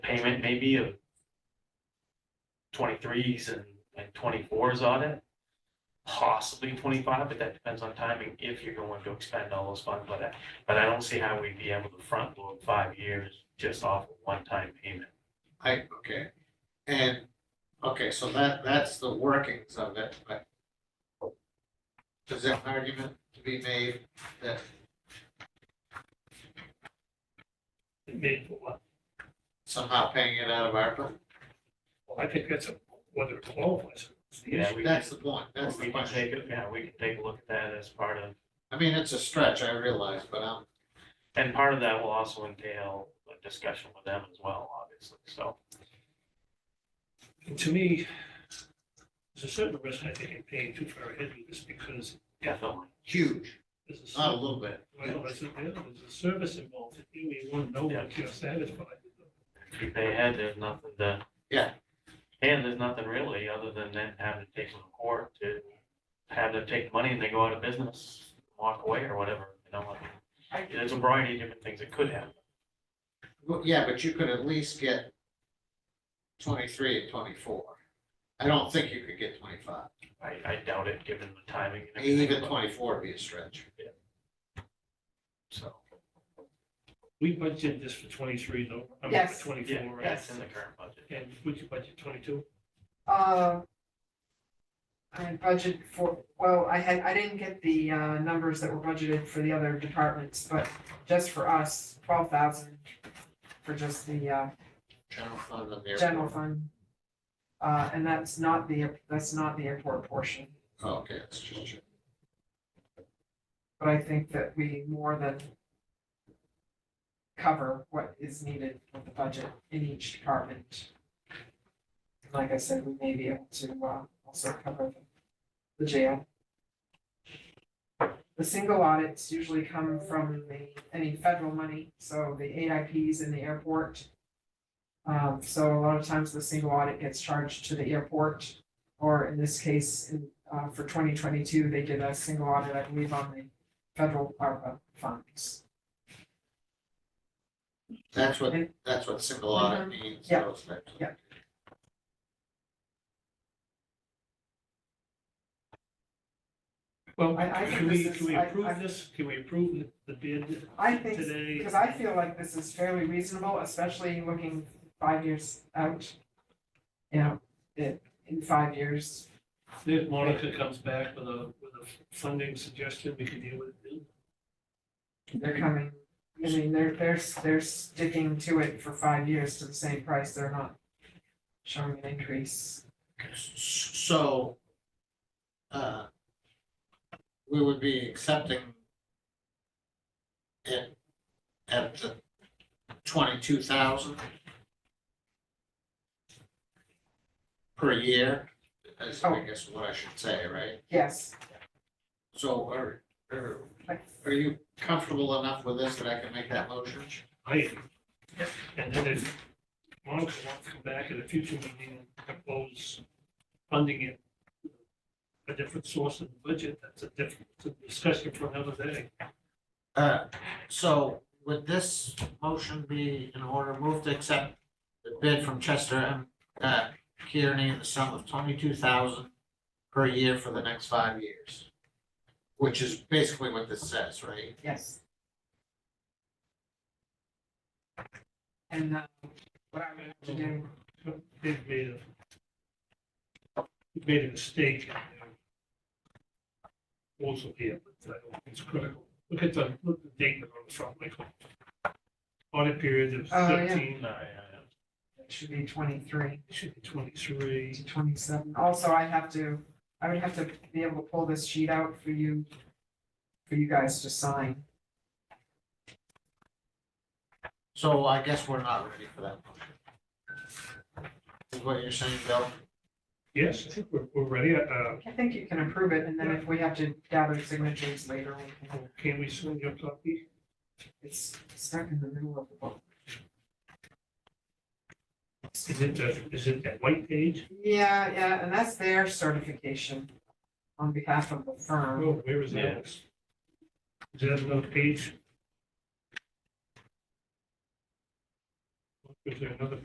payment maybe of twenty-threes and, and twenty-fours on it. Possibly twenty-five, but that depends on timing, if you're going to expend all those funds, but I, but I don't see how we'd be able to front load five years just off of one-time payment. I, okay, and, okay, so that, that's the workings of it, but. Is there an argument to be made that, made for what? somehow paying it out of ARPA? Well, I think that's a- whether it qualifies. is the Yeah, issue. we That's can- the point, that's the We can question. take, it- yeah, we can take a look at that as part of, I mean, it's a stretch, I realize, but I'm, and part of that will also entail a discussion with them as well, obviously, so. And to me, there's a certain risk I think in paying too far ahead with this because Definitely. huge, there's a not a service, little bit. well, that's it, yeah, there's a service involved. that You may want to know Yeah. if you're satisfied. with it. If they had, there's nothing to. Yeah. And there's nothing really, other than them having to take them to court to have them take money and they go out of business, walk away or whatever, you know, like. There's a variety of different things that could happen. Well, yeah, but you could at least get twenty-three and twenty-four. I don't think you could get twenty-five, I, I doubt it, given the timing. and everything, even but- twenty-four would be a stretch. So, We budgeted this for twenty-three though, I mean, Yes. for twenty-four, yeah, right? that's in the current budget. And would you budget twenty-two? Uh, I had budgeted for, well, I had, I didn't get the uh numbers that were budgeted for the other departments, but just for us, twelve thousand for just the uh General fund and the general airport. fund. Uh, and that's not the, that's not the airport portion, Oh, Okay, that's just, but I think that we more than cover what is needed with the budget in each department. Like I said, we may be able to uh also cover the jail. The single audits usually come from the, any federal money, so the AIPs in the airport. Um, so a lot of times the single audit gets charged to the airport, or in this case, in, uh, for twenty twenty-two, they did a single audit, I believe, on the federal ARPA funds. that's what, that's what single audit means. Mm-hmm. Yeah. those types of- Yeah. Well, I- I can think we, this can we is- I- approve I- this? Can we approve the bid? I think, Today. because I feel like this is fairly reasonable, especially looking five years out. You know, it, in five years, If Monica comes back with a, with a funding suggestion, we can deal with it. they're coming, I mean, they're, they're, they're sticking to it for five years to the same price, they're not showing an increase. So, uh, we would be accepting it at the twenty-two thousand per year, is I Oh. guess what I should say, right? Yes, So are, are, are you comfortable enough with this that I can make that motion? I, and then if Monica wants to come back at a future meeting and propose funding it, a different source of the budget, that's a different it's a discussion for another day. Uh, so would this motion be in order, move to accept the bid from Chester and, uh, Kearney in the sum of twenty-two thousand per year for the next five years? Which is basically what this says, right? yes. And, uh, what I would have to do They've made a, they've made a mistake. in their proposal here, but I don't think it's critical. Look at the, look at the date on the front, Michael. Audit period of Oh, yeah. thirteen, No, uh, yeah, yeah. It should be twenty-three it should be twenty-three. to twenty-seven. Also, I have to, I would have to be able to pull this sheet out for you, for you guys to sign. So I guess we're not ready for that motion. Is what you're saying, Bill? Yes, I think we're, we're ready. Uh, I think you can approve it, and then if we have to gather signatures later, we can, can we send your copy? it's stuck in the middle of the book. Is it, uh, is it that white page? Yeah, yeah, and that's their certification on behalf of the firm. Oh, where is that? Is that another page? Is there another